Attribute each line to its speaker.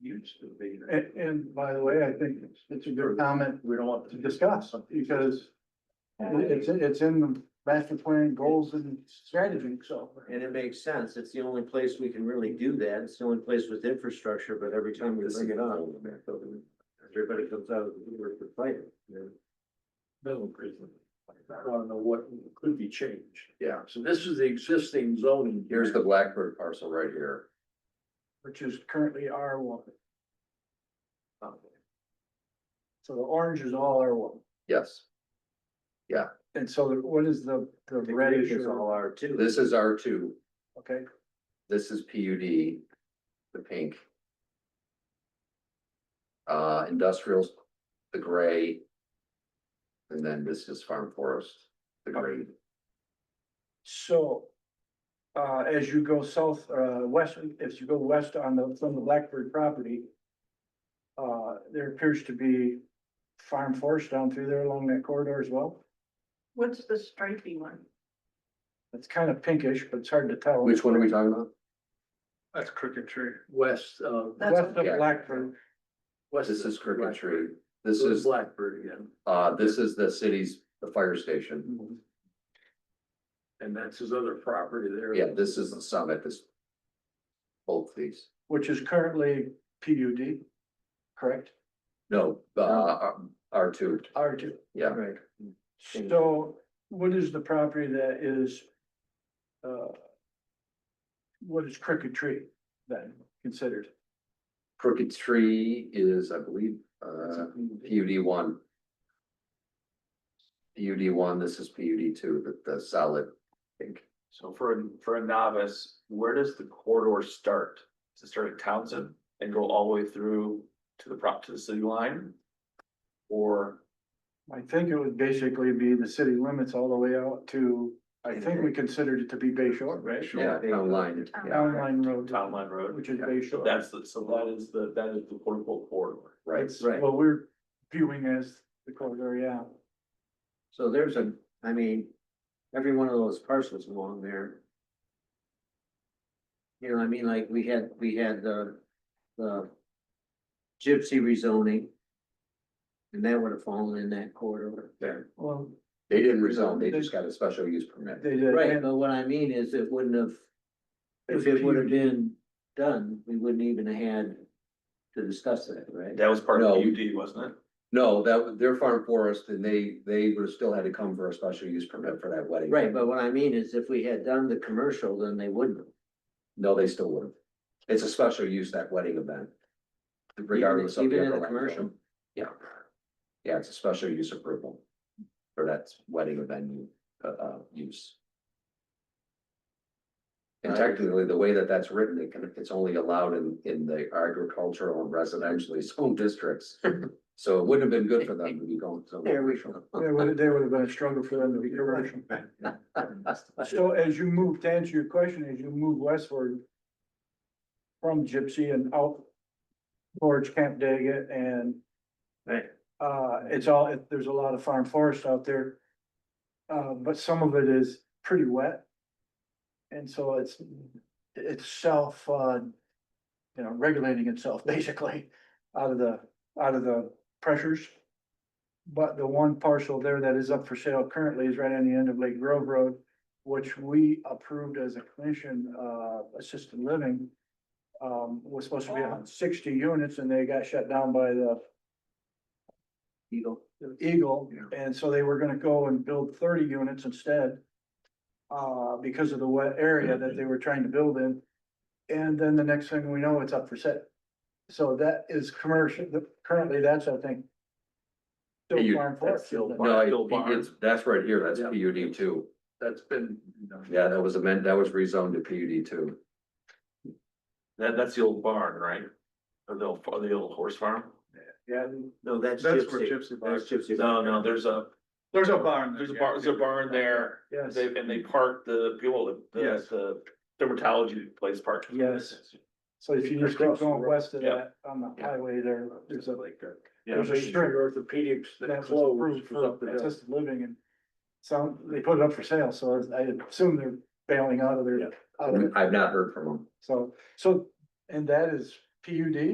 Speaker 1: used to be.
Speaker 2: And, and by the way, I think it's a good comment
Speaker 1: We don't want
Speaker 2: to discuss because it's, it's in the master plan goals and strategy, so.
Speaker 3: And it makes sense. It's the only place we can really do that. It's the only place with infrastructure, but every time we bring it up, everybody comes out of the woodwork to fight it.
Speaker 1: Middle prison. I don't know what could be changed. Yeah, so this is the existing zoning.
Speaker 4: Here's the Blackbird parcel right here.
Speaker 2: Which is currently R one. So the orange is all R one.
Speaker 4: Yes,
Speaker 2: And so what is the, the
Speaker 3: The green
Speaker 2: reddish
Speaker 3: is all
Speaker 2: or,
Speaker 3: R two.
Speaker 4: this is R two,
Speaker 2: okay,
Speaker 4: this is PUD, the pink. Uh, industrials, the gray. And then this is farm forest, the green.
Speaker 2: so. Uh, as you go south, uh, west, if you go west on the, from the Blackbird property. Uh, there appears to be farm forest down through there along that corridor as well.
Speaker 5: What's the stripy one?
Speaker 2: It's kind of pinkish, but it's hard to tell.
Speaker 4: Which one are we talking about?
Speaker 1: That's cricket tree. West of.
Speaker 5: That's
Speaker 2: West of
Speaker 4: yeah.
Speaker 2: Blackbird,
Speaker 1: west
Speaker 4: This
Speaker 1: of
Speaker 4: is Cricket Tree,
Speaker 1: Blackbird.
Speaker 4: this
Speaker 1: This is
Speaker 4: is,
Speaker 1: Blackbird again.
Speaker 4: uh, this is the city's, the fire station.
Speaker 1: And that's his other property there.
Speaker 4: Yeah, this is the summit, this. Both these,
Speaker 2: which is currently PUD, correct?
Speaker 4: no, uh, R two,
Speaker 2: R two.
Speaker 4: yeah.
Speaker 3: Right.
Speaker 2: So what is the property that is? uh, What is Crooked Tree then considered?
Speaker 4: Crooked Tree is, I believe, uh, PUD one. PUD one, this is PUD two, the, the solid pink.
Speaker 6: So for, a for a novice, where does the corridor start? Does it start at Townsend and go all the way through to the prop, to the city line? Or,
Speaker 2: I think it would basically be the city limits all the way out to, I think we considered it to be Bay Shore, right?
Speaker 4: Yeah, town line, yeah,
Speaker 2: Town line road.
Speaker 6: Town Line Road?
Speaker 2: Which is Bay Shore.
Speaker 6: that's the, so that is the, that is the portable corridor.
Speaker 4: right,
Speaker 2: It's
Speaker 3: right.
Speaker 2: What we're viewing as the corridor, yeah.
Speaker 3: So there's a, I mean, every one of those parcels along there. You know, I mean, like, we had, we had the, the gypsy rezoning. And that would have fallen in that corridor.
Speaker 4: there.
Speaker 2: Well,
Speaker 4: They didn't rezone, they just got a special use permit.
Speaker 2: they did.
Speaker 3: Right, but what I mean is it wouldn't have, if it would have been done, we wouldn't even have had to discuss that, right?
Speaker 6: That was part of
Speaker 4: No.
Speaker 6: PUD, wasn't it?
Speaker 4: No, that, they're farm forest and they, they would have still had to come for a special use permit for that wedding.
Speaker 3: Right, but what I mean is if we had done the commercial, then they wouldn't have.
Speaker 4: No, they still would have. It's a special use, that wedding event. Regardless of.
Speaker 3: Even- even
Speaker 4: upper
Speaker 3: in the
Speaker 4: land zone.
Speaker 3: commercial?
Speaker 4: Yeah. Yeah, it's a special use approval. For that wedding event, uh, uh, use. And technically, the way that that's written, it can, it's only allowed in, in the agricultural and residentially zoned districts. So it wouldn't have been good for them to be going to.
Speaker 3: There we go.
Speaker 2: There would, there would have been a struggle for them to be commercial. So as you move, to answer your question, as you move westward from Gypsy and out towards Camp Daggett and
Speaker 3: Right.
Speaker 2: uh, it's all, it- there's a lot of farm forest out there. Uh, but some of it is pretty wet. And so it's, it's self, uh, you know, regulating itself basically out of the, out of the pressures. But the one parcel there that is up for sale currently is right on the end of Lake Grove Road, which we approved as a commission, uh, assisted living. Um, was supposed to be on sixty units and they got shut down by the
Speaker 3: Eagle.
Speaker 2: Eagle. And so they were gonna go and build thirty units instead. Uh, because of the wet area that they were trying to build in. And then the next thing we know, it's up for sale. So that is commercial, currently that's, I think. still
Speaker 4: You-
Speaker 2: farm
Speaker 6: that's
Speaker 2: forest,
Speaker 6: still
Speaker 2: isn't it?
Speaker 4: No,
Speaker 6: Bill
Speaker 4: it-
Speaker 6: Barnes.
Speaker 4: it's, that's right here, that's
Speaker 1: Yeah.
Speaker 4: PUD two.
Speaker 1: That's been.
Speaker 4: Yeah, that was amended, that was rezoned to PUD two.
Speaker 6: That, that's the old barn, right? Or the old, or the old horse farm?
Speaker 2: Yeah,
Speaker 3: No, that's
Speaker 1: That's where
Speaker 3: gypsy.
Speaker 1: Gypsy
Speaker 3: That's gypsy.
Speaker 6: No, no, there's a,
Speaker 1: There's a barn.
Speaker 6: there's a barn, there's a barn there.
Speaker 2: yes.
Speaker 6: They, and they park the, people, the,
Speaker 1: Yes.
Speaker 6: the dermatology place park.
Speaker 2: Yes. So if you just keep going west of
Speaker 6: Yeah.
Speaker 2: that, on the highway there, there's a,
Speaker 1: There's a strip orthopedics
Speaker 2: that
Speaker 1: that
Speaker 2: was
Speaker 1: closed
Speaker 2: approved
Speaker 1: for something
Speaker 2: for assisted living and some, they put it up for sale, so I assume they're bailing out of their, out of it.
Speaker 4: I've not heard from them.
Speaker 2: So, so, and that is PUD